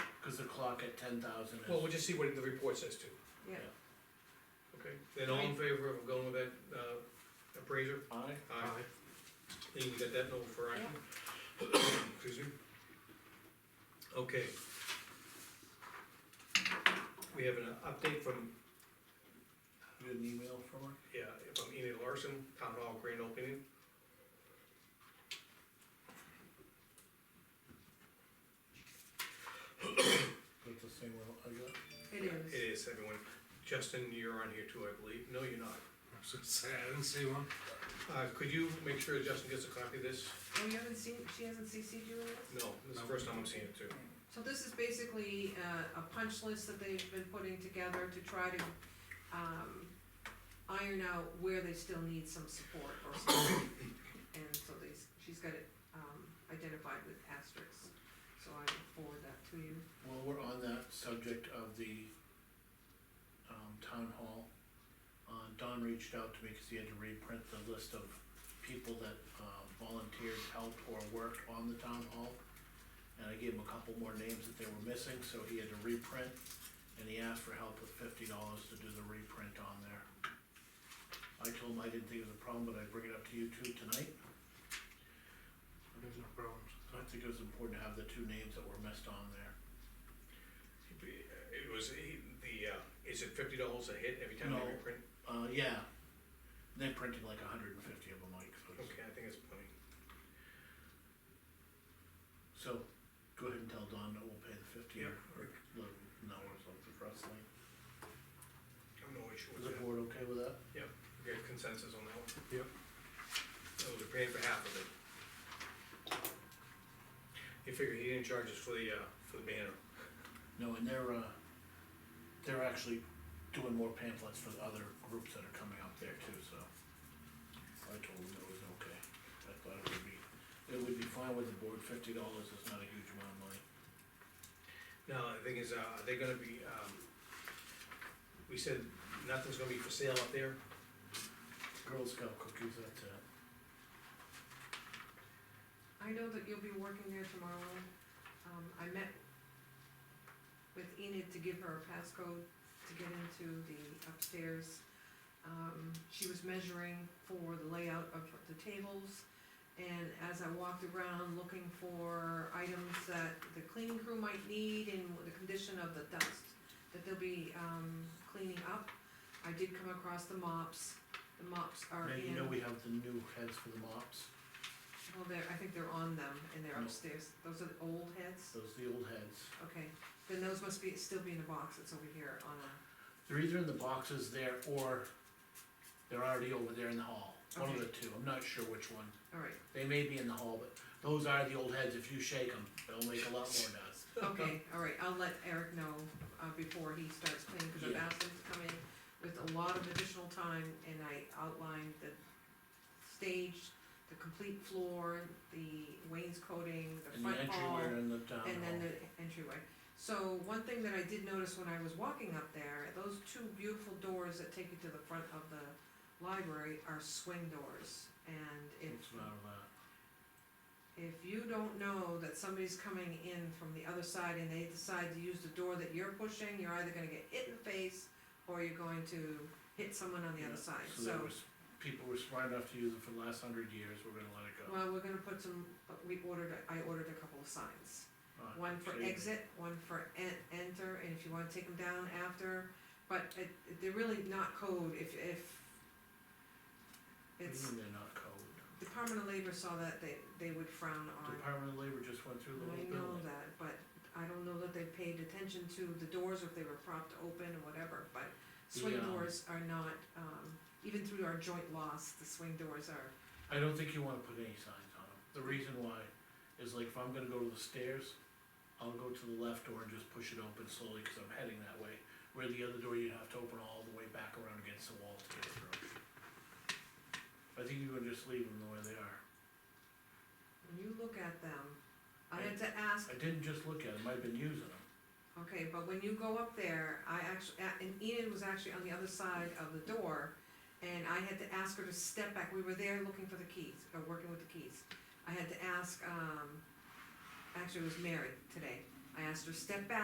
is the clock at ten thousand Well, we'll is. just see what the report says too. yeah. Okay. Then all in favor of going with that, uh, appraiser? Aye. Aye. Lean, we got that note for action? Excuse me? Okay. We have an update from You Get an email from her? Yeah, if I'm Enid Larson, Town Hall grand opening. That's the same one I got. It It is. is, everyone. Justin, you're on here too, I believe. No, you're not. I was gonna say, I didn't see one. Uh, could you make sure Justin gets a copy of this? Oh, you haven't seen, she hasn't CC'd you in this? No, this is the first time I'm seeing it too. So this is basically uh, a punch list that they've been putting together to try to um, iron out where they still need some support or something. And so they, she's got it um, identified with asterisks, so I will forward that to you. Well, we're on that subject of the, um, town hall. Uh, Don reached out to me because he had to reprint the list of people that, uh, volunteered, helped, or worked on the town hall. And I gave him a couple more names that they were missing, so he had to reprint, and he asked for help with fifty dollars to do the reprint on there. I told him I didn't think it was a problem, but I'd bring it up to you two tonight. There's no problems. I think it was important to have the two names that were missed on there. It was, he- the, uh, is it fifty dollars a hit every time No. they reprint? Uh, yeah. They printed like hundred and fifty of them, like, so, it's- Okay, I think it's plenty. so, go ahead and tell Don that we'll pay the fifty or, or the, no, or something for us, like, I'm no issue is with the that. board okay with that? We got consensus on that one. Yep. So they're paying for half of it. You figure he didn't charge us for the, uh, for the banner. No, and they're, uh, they're actually doing more pamphlets for the other groups that are coming up there too, so. I told them it was okay, I thought it would be, it would be fine with the board, fifty dollars is not a huge amount of money. No, the thing is, uh, are they gonna be, um, we said nothing's gonna be for sale up there, Girl Scout cookies, that's it. I know that you'll be working there tomorrow. Um, I met with Enid to give her a passcode to get into the upstairs. Um, she was measuring for the layout of the tables. And as I walked around looking for items that the cleaning crew might need and the condition of the dust that they'll be, um, cleaning up, I did come across the mops. The mops are Now, in. you know we have the new heads for the mops, Well, they're, I think they're on them and they're No. upstairs. Those are the old heads? those are the old heads. Okay, then those must be, still be in the box that's over here on a, They're either in the boxes there or they're already over there in the hall, one of the two, I'm not sure which one. all right, They may be in the hall, but those are the old heads, if you shake them, they'll make a lot more noise. okay, all right, I'll let Eric know, uh, before he starts cleaning, cause I've Yeah. asked him to come in with a lot of additional time and I outlined the stage, the complete floor, the wainscoting, the And the front hall. entryway in the town and then hall, the entryway. So one thing that I did notice when I was walking up there, those two beautiful doors that take you to the front of the library are swing doors. And if, it's not allowed. if you don't know that somebody's coming in from the other side and they decide to use the door that you're pushing, you're either gonna get hit in the face or you're going to hit someone on the other side, So there was, people were smart enough to use it for the last hundred years, we're gonna let it go. Well, we're gonna put some, we ordered, I ordered a couple of signs. Alright, One for so you- exit, one for en- enter, and if you wanna take them down after, but it, they're really not code if, if. what do you It's, mean They're not code. Department of Labor saw that they, they would frown on. Department of Labor just went through the whole I know building. that, but I don't know that they paid attention to the doors, or if they were propped open or whatever, but swing The, um, doors are not, um, even through our joint loss, the swing doors are I don't think you wanna put any signs on them. The reason why is like if I'm gonna go to the stairs, I'll go to the left door and just push it open slowly, cause I'm heading that way. Where the other door, you'd have to open all the way back around against the wall to get it through. I think you would just leave them the way they are. When you look at them, I had to ask, I didn't just look at them, I've been using them. okay, but when you go up there, I actually, and Enid was actually on the other side of the door, and I had to ask her to step back, we were there looking for the keys, or working with the keys. I had to ask, um, actually it was Mary today, I asked her, step back